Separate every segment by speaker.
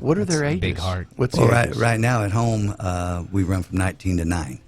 Speaker 1: What are
Speaker 2: That's
Speaker 1: their
Speaker 2: a
Speaker 1: ages?
Speaker 2: big heart.
Speaker 1: What's
Speaker 3: Well,
Speaker 1: the
Speaker 3: Oh, right,
Speaker 1: ages?
Speaker 3: right now at home, uh, we run from 19 to 9.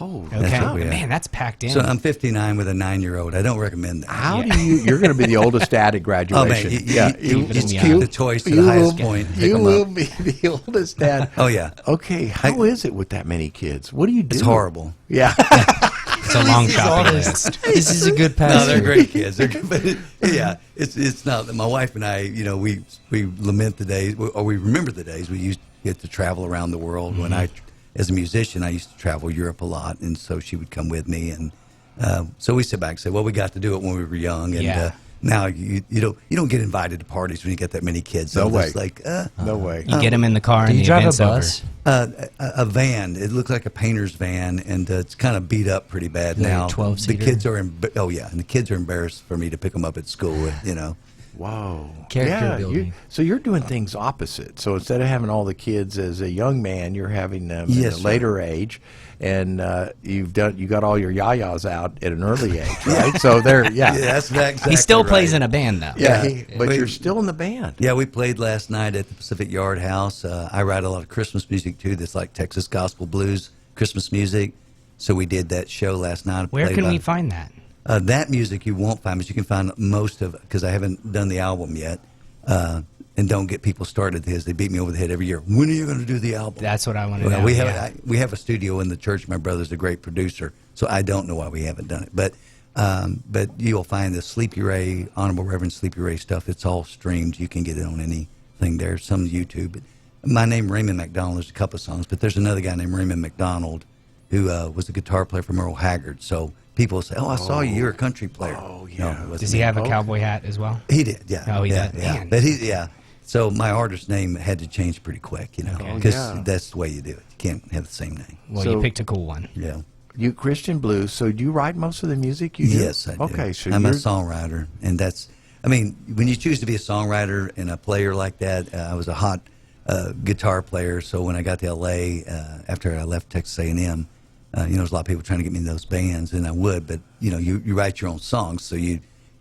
Speaker 1: Oh,
Speaker 2: Okay.
Speaker 3: That's what we have.
Speaker 2: Man, that's packed in.
Speaker 3: So um, I'm 59 with a nine year old. I don't recommend that.
Speaker 1: How do you? You're going to be the oldest dad at
Speaker 3: Oh,
Speaker 1: graduation.
Speaker 3: man. You, you,
Speaker 1: yeah,
Speaker 3: you,
Speaker 2: Keep it
Speaker 3: you
Speaker 2: in the
Speaker 3: keep
Speaker 2: eye.
Speaker 3: the toys to
Speaker 1: you
Speaker 3: the highest
Speaker 1: will-
Speaker 3: point. and pick
Speaker 1: You
Speaker 3: 'em
Speaker 1: will
Speaker 3: up.
Speaker 1: be the oldest dad.
Speaker 3: Oh, yeah.
Speaker 1: Okay, how is it with that many kids? What do you do?
Speaker 3: It's horrible.
Speaker 1: Yeah,
Speaker 2: it's a long shopping list. This is a good pass.
Speaker 3: No, they're great kids. They're, but it, yeah, it's it's not. My wife and I, you know, we we lament the days, or we remember the days we used to get to travel around the world. When I, as a musician, I used to travel Europe a lot, and so she would come with me, and uh, so we sit back and say, well, we got to do it when we were young, and.
Speaker 2: Yeah.
Speaker 3: Uh, now you you don't you don't get invited to parties when you get that many kids.
Speaker 1: No
Speaker 3: I'm just
Speaker 1: way.
Speaker 3: Like uh,
Speaker 1: no way.
Speaker 2: You get them in the car
Speaker 4: Do
Speaker 2: and
Speaker 4: you
Speaker 2: the
Speaker 4: drive
Speaker 2: event's
Speaker 4: a bus?
Speaker 2: over.
Speaker 3: uh, a, a van. It looked like a painter's van, and uh, it's kind of beat up pretty bad
Speaker 4: Like a
Speaker 3: now.
Speaker 4: 12-seater?
Speaker 3: The kids are emb- oh yeah, and the kids are embarrassed for me to pick them up at school. You know,
Speaker 1: Wow.
Speaker 4: Character
Speaker 1: yeah, You,
Speaker 4: building.
Speaker 1: so you're doing things opposite. So instead of having all the kids as a young man, you're having them
Speaker 3: Yes,
Speaker 1: at a
Speaker 3: sir.
Speaker 1: later age, and uh, you've done you got all your yayas out at an early age, right? so there, yeah,
Speaker 3: yeah, that's that exactly.
Speaker 2: He still plays
Speaker 3: right.
Speaker 2: in a band though.
Speaker 1: yeah.
Speaker 3: Yeah.
Speaker 1: he- but
Speaker 3: We-
Speaker 1: you're still in the band.
Speaker 3: Yeah, we played last night at the Pacific Yard House. Uh, I write a lot of Christmas music too. That's like Texas gospel blues, Christmas music. So we did that show last night.
Speaker 2: Where
Speaker 3: Played
Speaker 2: can
Speaker 3: about-
Speaker 2: we find that?
Speaker 3: Uh, that music you won't find, but you can find most of it because I haven't done the album yet. Uh, and don't get people started because they beat me over the head every year. When are you going to do the album?
Speaker 2: That's what I want to
Speaker 3: Well,
Speaker 2: know.
Speaker 3: we have
Speaker 2: yeah.
Speaker 3: I, we have a studio in the church. My brother's a great producer, so I don't know why we haven't done it. But um, but you'll find the Sleepy Ray, Honorable Reverend Sleepy Ray stuff. It's all streamed. You can get it on anything there. Some YouTube. But my name Raymond McDonald. There's a couple of songs, but there's another guy named Raymond McDonald who uh, was a guitar player from Earl Haggard. So people say, "Oh, I saw you. You're a country player." Oh
Speaker 1: yeah.
Speaker 2: Does he have a cowboy hat as well?
Speaker 3: He did, yeah.
Speaker 2: Oh, he
Speaker 3: yeah,
Speaker 2: did?
Speaker 3: yeah.
Speaker 2: Man.
Speaker 3: But he, yeah. So my artist name had to change pretty quick, you know,
Speaker 2: Okay.
Speaker 3: because
Speaker 1: yeah.
Speaker 3: that's the way you do it. You can't have the same name.
Speaker 2: Well, you
Speaker 1: So-
Speaker 2: picked a cool one.
Speaker 3: Yeah.
Speaker 1: You Christian blues. So do you write most of the music? You do?
Speaker 3: Yes, I do.
Speaker 1: Okay, so
Speaker 3: I'm a
Speaker 1: you're,
Speaker 3: songwriter, and that's. I mean, when you choose to be a songwriter and a player like that, uh, I was a hot uh, guitar player. So when I got to L.A. Uh, after I left Texas A&M, uh, you know, there's a lot of people trying to get me in those bands, and I would, but you know, you, you write your own songs, so you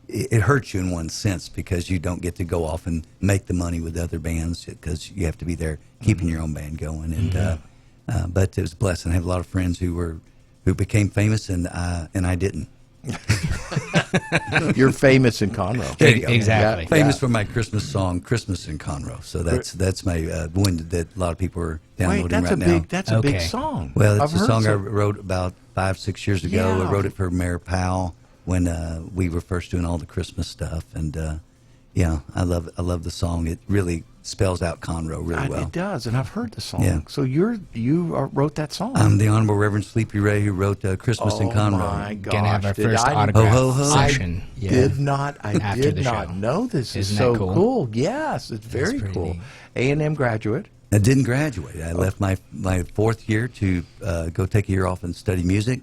Speaker 3: it, it hurts you in one sense because you don't get to go off and make the money with other bands because you have to be there keeping
Speaker 1: Mm-hmm.
Speaker 3: your own band going. And uh, uh, but it was a blessing. I have a lot of friends who were who became famous, and I, and I didn't.
Speaker 1: you're famous in Conroe.
Speaker 3: There you go.
Speaker 2: Exactly.
Speaker 1: Yeah.
Speaker 3: Famous for my Christmas song, "Christmas in Conroe." So that's that's my uh, one that a lot of people are downloading
Speaker 1: Wait, that's
Speaker 3: right
Speaker 1: a
Speaker 3: now.
Speaker 1: big that's a big
Speaker 2: Okay.
Speaker 1: song.
Speaker 3: well, it's
Speaker 1: I've
Speaker 3: a
Speaker 1: heard
Speaker 3: song I
Speaker 1: some-
Speaker 3: wrote about five six years ago.
Speaker 1: Yeah.
Speaker 3: I wrote it for Mayor Powell when uh, we were first doing all the Christmas stuff, and uh, yeah, I love I love the song. It really spells out Conroe really
Speaker 1: I-
Speaker 3: well.
Speaker 1: It does, and I've heard the song.
Speaker 3: Yeah.
Speaker 1: So you're you are, wrote that song.
Speaker 3: I'm the Honorable Reverend Sleepy Ray who wrote uh, "Christmas in
Speaker 1: Oh,
Speaker 3: Conroe."
Speaker 1: my gosh!
Speaker 2: Gonna have our
Speaker 1: did
Speaker 2: first
Speaker 1: I-
Speaker 2: autograph
Speaker 3: Ho, ho, ho.
Speaker 2: session.
Speaker 1: I did not. I
Speaker 2: After
Speaker 1: did
Speaker 2: the
Speaker 1: not
Speaker 2: show.
Speaker 1: know this is
Speaker 2: Isn't
Speaker 1: so
Speaker 2: that cool?
Speaker 1: Yes, it's very
Speaker 2: pretty
Speaker 1: cool.
Speaker 2: neat.
Speaker 1: A and M graduate.
Speaker 3: I didn't graduate. I left my my fourth year to uh, go take a year off and study music.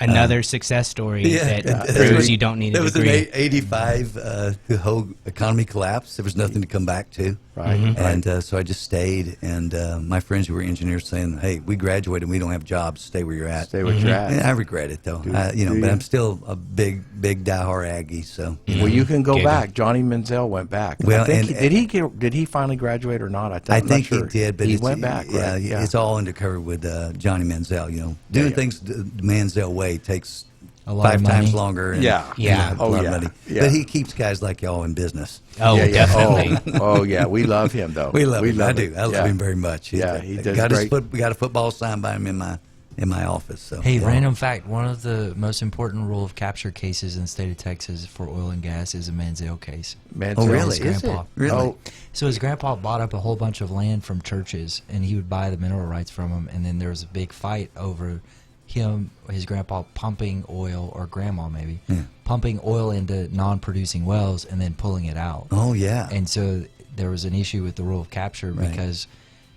Speaker 2: Another success story that
Speaker 3: Yeah.
Speaker 2: proves you don't need
Speaker 3: There
Speaker 2: a
Speaker 3: was an
Speaker 2: degree.
Speaker 3: eight- 85, uh, the whole economy collapsed. There was nothing to come back to.
Speaker 1: Right, Mhm.
Speaker 3: And uh, so I just stayed. And uh, my friends who were engineers saying, hey, we graduated and we don't have jobs. Stay where you're at.
Speaker 1: Stay
Speaker 2: Mm-hmm.
Speaker 1: where you're at.
Speaker 3: And I regret it, though. I, you know,
Speaker 1: do
Speaker 3: but
Speaker 1: you?
Speaker 3: I'm still a big, big diehard Aggie. So,
Speaker 1: Well, you can go
Speaker 2: Giggle.
Speaker 1: back. Johnny Menzel went back. I
Speaker 3: Well,
Speaker 1: think
Speaker 3: and-
Speaker 1: he- did he get, did he finally graduate or not? I, th-
Speaker 3: I
Speaker 1: I'm not
Speaker 3: think
Speaker 1: sure.
Speaker 3: he did, but
Speaker 1: he
Speaker 3: it's,
Speaker 1: went back.
Speaker 3: Yeah,
Speaker 1: right? yeah.
Speaker 3: it's all undercover with uh, Johnny Manziel. You know, doing
Speaker 1: yeah.
Speaker 3: things the Manziel way takes
Speaker 4: A lot
Speaker 3: five
Speaker 4: of
Speaker 3: times
Speaker 4: money.
Speaker 3: longer. And,
Speaker 1: Yeah.
Speaker 3: you
Speaker 2: Yeah.
Speaker 3: know,
Speaker 1: Oh,
Speaker 3: a lot
Speaker 1: yeah.
Speaker 3: of money.
Speaker 1: Yeah.
Speaker 3: But he keeps guys like y'all in business.
Speaker 2: oh,
Speaker 1: Yeah, yeah.
Speaker 2: definitely.
Speaker 1: Oh, oh, yeah. We love him though.
Speaker 3: We love him. I do. I love
Speaker 1: yeah.
Speaker 3: him very much. He's
Speaker 1: Yeah,
Speaker 3: a-
Speaker 1: he does
Speaker 3: got his
Speaker 1: great.
Speaker 3: foot, we got a football signed by him in my in my office. So
Speaker 4: Hey,
Speaker 3: yeah.
Speaker 4: random fact: one of the most important rule of capture cases in the state of Texas for oil and gas is a Manziel case.
Speaker 1: Menzel.
Speaker 3: Oh, really?
Speaker 1: Is it?
Speaker 4: Grandpa.
Speaker 3: Really?
Speaker 1: Oh,
Speaker 4: So his grandpa bought up a whole bunch of land from churches, and he would buy the mineral rights from them. And then there was a big fight over him, his grandpa pumping oil, or grandma maybe, pumping oil into non-producing wells and then pulling it out.
Speaker 3: Oh yeah.
Speaker 4: And so there was an issue with the rule of capture
Speaker 3: Right.
Speaker 4: because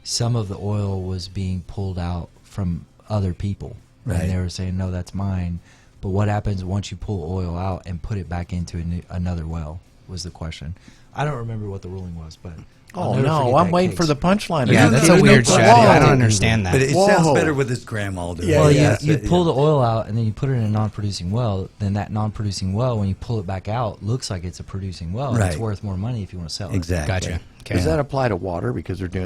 Speaker 4: some of the oil was being pulled out from other people.
Speaker 3: Right.
Speaker 4: And they were saying, no, that's mine. But what happens once you pull oil out and put it back into a new, another well was the question. I don't remember what the ruling was, but. I'll
Speaker 1: oh
Speaker 4: never
Speaker 1: no!
Speaker 4: forget
Speaker 1: I'm
Speaker 4: that
Speaker 1: waiting
Speaker 4: case.
Speaker 1: for the punchline.
Speaker 2: yeah,
Speaker 3: You
Speaker 2: that's
Speaker 3: know,
Speaker 2: a
Speaker 3: you
Speaker 2: weird
Speaker 3: know,
Speaker 2: strategy. I don't
Speaker 3: whoa.
Speaker 2: understand that.
Speaker 3: but it
Speaker 1: Whoa.
Speaker 3: sounds better with his grandma doing
Speaker 1: Yeah,
Speaker 3: it.
Speaker 4: Well,
Speaker 1: yeah.
Speaker 4: you, you
Speaker 3: That's it,
Speaker 4: pull the oil out and then you put it in a non-producing well. Then that non-producing well, when you pull it back out, looks like it's a producing well. and It's
Speaker 3: Right.
Speaker 4: worth more money if you want to sell it.
Speaker 3: Exactly.
Speaker 2: Gotcha. Okay.
Speaker 1: Does that apply to water because they're doing